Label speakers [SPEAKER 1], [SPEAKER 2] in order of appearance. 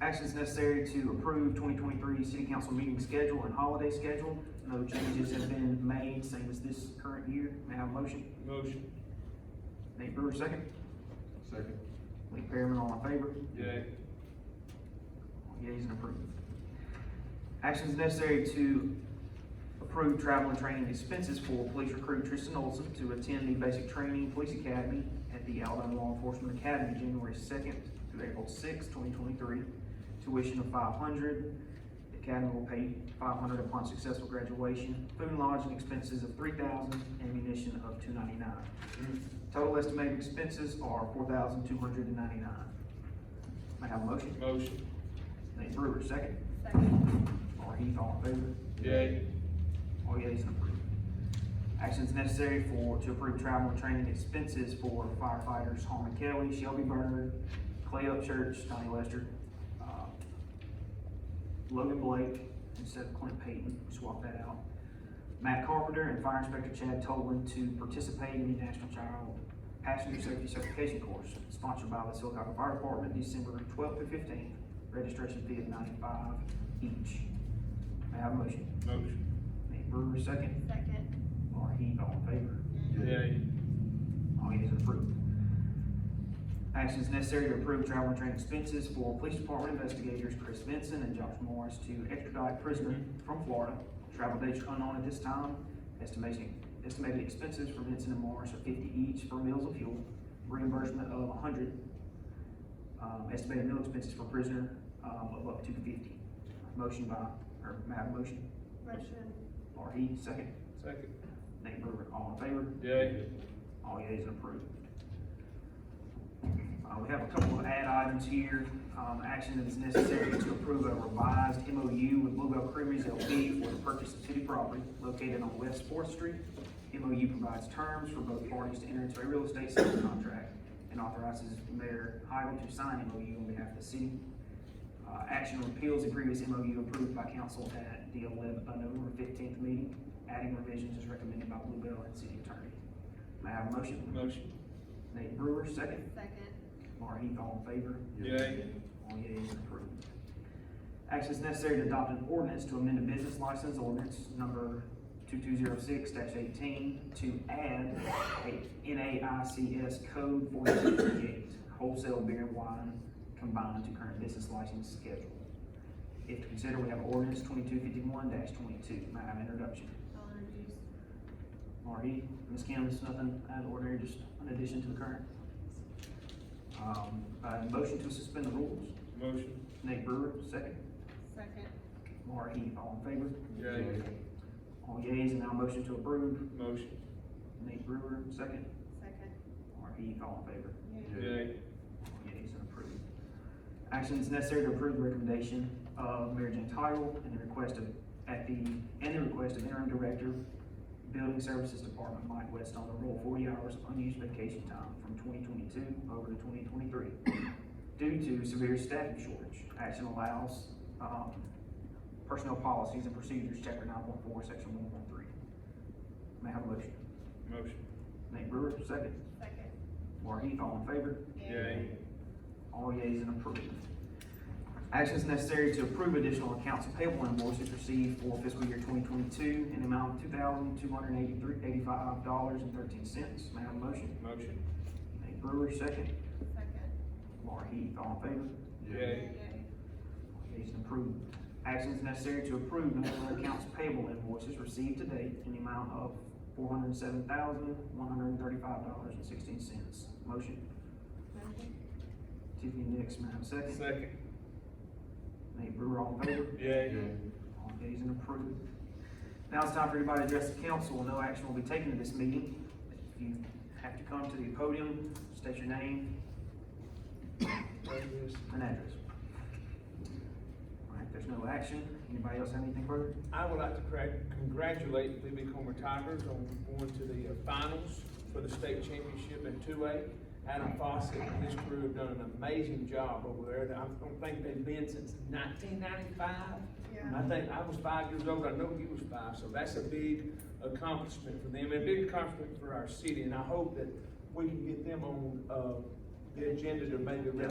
[SPEAKER 1] Actions necessary to approve twenty twenty-three city council meeting schedule and holiday schedule. No changes have been made, same as this current year. May I have a motion?
[SPEAKER 2] Motion.
[SPEAKER 1] Nate Brewer, second.
[SPEAKER 2] Second.
[SPEAKER 1] Lee Perryman, all in favor?
[SPEAKER 2] Yay.
[SPEAKER 1] All Yeas and approved. Actions necessary to approve travel and training expenses for police recruit Tristan Olson to attend the basic training police academy at the Alabama Law Enforcement Academy, January second through April sixth, twenty twenty-three. Tuition of five hundred. The academy will pay five hundred upon successful graduation. Food and lodging expenses of three thousand, ammunition of two ninety-nine. Total estimated expenses are four thousand two hundred and ninety-nine. May I have a motion?
[SPEAKER 2] Motion.
[SPEAKER 1] Nate Brewer, second.
[SPEAKER 3] Second.
[SPEAKER 1] Laurie Heath, all in favor?
[SPEAKER 2] Yay.
[SPEAKER 1] All yeas and approved. Actions necessary for, to approve travel and training expenses for firefighters Harmon Kelly, Shelby Burner, Clay Upchurch, Donnie Lester, uh, Logan Blake instead of Clint Payton, swap that out. Matt Carpenter and Fire Inspector Chad Tolan to participate in the National Child Passenger Safety Certification Course sponsored by the Silicon Fire Department, December twelfth through fifteenth. Registration fee of ninety-five each. May I have a motion?
[SPEAKER 2] Motion.
[SPEAKER 1] Nate Brewer, second.
[SPEAKER 3] Second.
[SPEAKER 1] Laurie Heath, all in favor?
[SPEAKER 2] Yay.
[SPEAKER 1] All yeas approved. Actions necessary to approve travel and train expenses for police department investigators Chris Vinson and Josh Morris to extradite prisoner from Florida. Travel dates are unknown at this time. Estimation, estimated expenses for Vinson and Morris are fifty each for meals and fuel. Reimbursement of a hundred. Um, estimated meal expenses for prisoner, um, of up to fifty. Motion by, or may I have a motion?
[SPEAKER 3] Motion.
[SPEAKER 1] Laurie Heath, second.
[SPEAKER 2] Second.
[SPEAKER 1] Nate Brewer, all in favor?
[SPEAKER 2] Yay.
[SPEAKER 1] All yeas approved. Uh, we have a couple of add items here, um, action that is necessary to approve a revised MOU with Bluebell Creameries LP for the purchase of city property located on West Fourth Street. MOU provides terms for both parties to enter into a real estate sales contract and authorizes Mayor Heidel to sign MOU on behalf of the city. Uh, action on appeals and previous MOU approved by council at the eleven, uh, November fifteenth meeting, adding revisions as recommended by Bluebell and city attorney. May I have a motion?
[SPEAKER 2] Motion.
[SPEAKER 1] Nate Brewer, second.
[SPEAKER 3] Second.
[SPEAKER 1] Laura Heath, all in favor?
[SPEAKER 2] Yay.
[SPEAKER 1] All yeas approved. Action is necessary to adopt an ordinance to amend a business license ordinance number two-two-zero-six eighteen to add a NAICS code forty-two thirty-eight, wholesale beer and wine combined to current business license schedule. If to consider, we have ordinance twenty-two fifty-one twenty-two. May I have an introduction?
[SPEAKER 3] I'll introduce.
[SPEAKER 1] Laura Heath, Ms. Kim, it's nothing out of the ordinary, just an addition to the current. Um, uh, motion to suspend the rules.
[SPEAKER 2] Motion.
[SPEAKER 1] Nate Brewer, second.
[SPEAKER 3] Second.
[SPEAKER 1] Laura Heath, all in favor?
[SPEAKER 2] Yay.
[SPEAKER 1] All yeas, and now motion to approve.
[SPEAKER 2] Motion.
[SPEAKER 1] Nate Brewer, second.
[SPEAKER 3] Second.
[SPEAKER 1] Laura Heath, all in favor?
[SPEAKER 2] Yay.
[SPEAKER 1] All yeas, and approved. Action is necessary to approve the recommendation of Mary Jane Tyrell and the request of, at the, and the request of interim director, Building Services Department, Mike West, on the roll forty hours of unused vacation time from twenty twenty-two over to twenty twenty-three due to severe staffing shortage. Action allows, um, personnel policies and procedures, chapter nine one four, section one one three. May I have a motion?
[SPEAKER 2] Motion.
[SPEAKER 1] Nate Brewer, second.
[SPEAKER 3] Second.
[SPEAKER 1] Laura Heath, all in favor?
[SPEAKER 2] Yay.
[SPEAKER 1] All yeas and approved. Actions necessary to approve additional accounts payable invoices received for fiscal year twenty twenty-two in the amount of two thousand two hundred eighty-three, eighty-five dollars and thirteen cents. May I have a motion?
[SPEAKER 2] Motion.
[SPEAKER 1] Nate Brewer, second.
[SPEAKER 3] Second.
[SPEAKER 1] Laura Heath, all in favor?
[SPEAKER 2] Yay.
[SPEAKER 1] All yeas and approved. Actions necessary to approve no other accounts payable invoices received to date in the amount of four hundred seven thousand one hundred thirty-five dollars and sixteen cents. Motion,
[SPEAKER 3] Motion.
[SPEAKER 1] Tiffany Nix, may I have a second?
[SPEAKER 2] Second.
[SPEAKER 1] Nate Brewer, all in favor?
[SPEAKER 2] Yay.
[SPEAKER 1] All yeas and approved. Now it's time for everybody to address the council. No action will be taken at this meeting. If you have to come to the podium, state your name and address. All right, there's no action. Anybody else have anything further?
[SPEAKER 4] I would like to cra- congratulate Libby Comer Tigers on going to the uh, finals for the state championship in two A. Adam Fawcett and his crew have done an amazing job over there. I don't think they've been since nineteen ninety-five.
[SPEAKER 3] Yeah.
[SPEAKER 4] I think I was five years old, I know he was five, so that's a big accomplishment for them, and a big accomplishment for our city. And I hope that we can get them on, uh, the agenda to maybe rep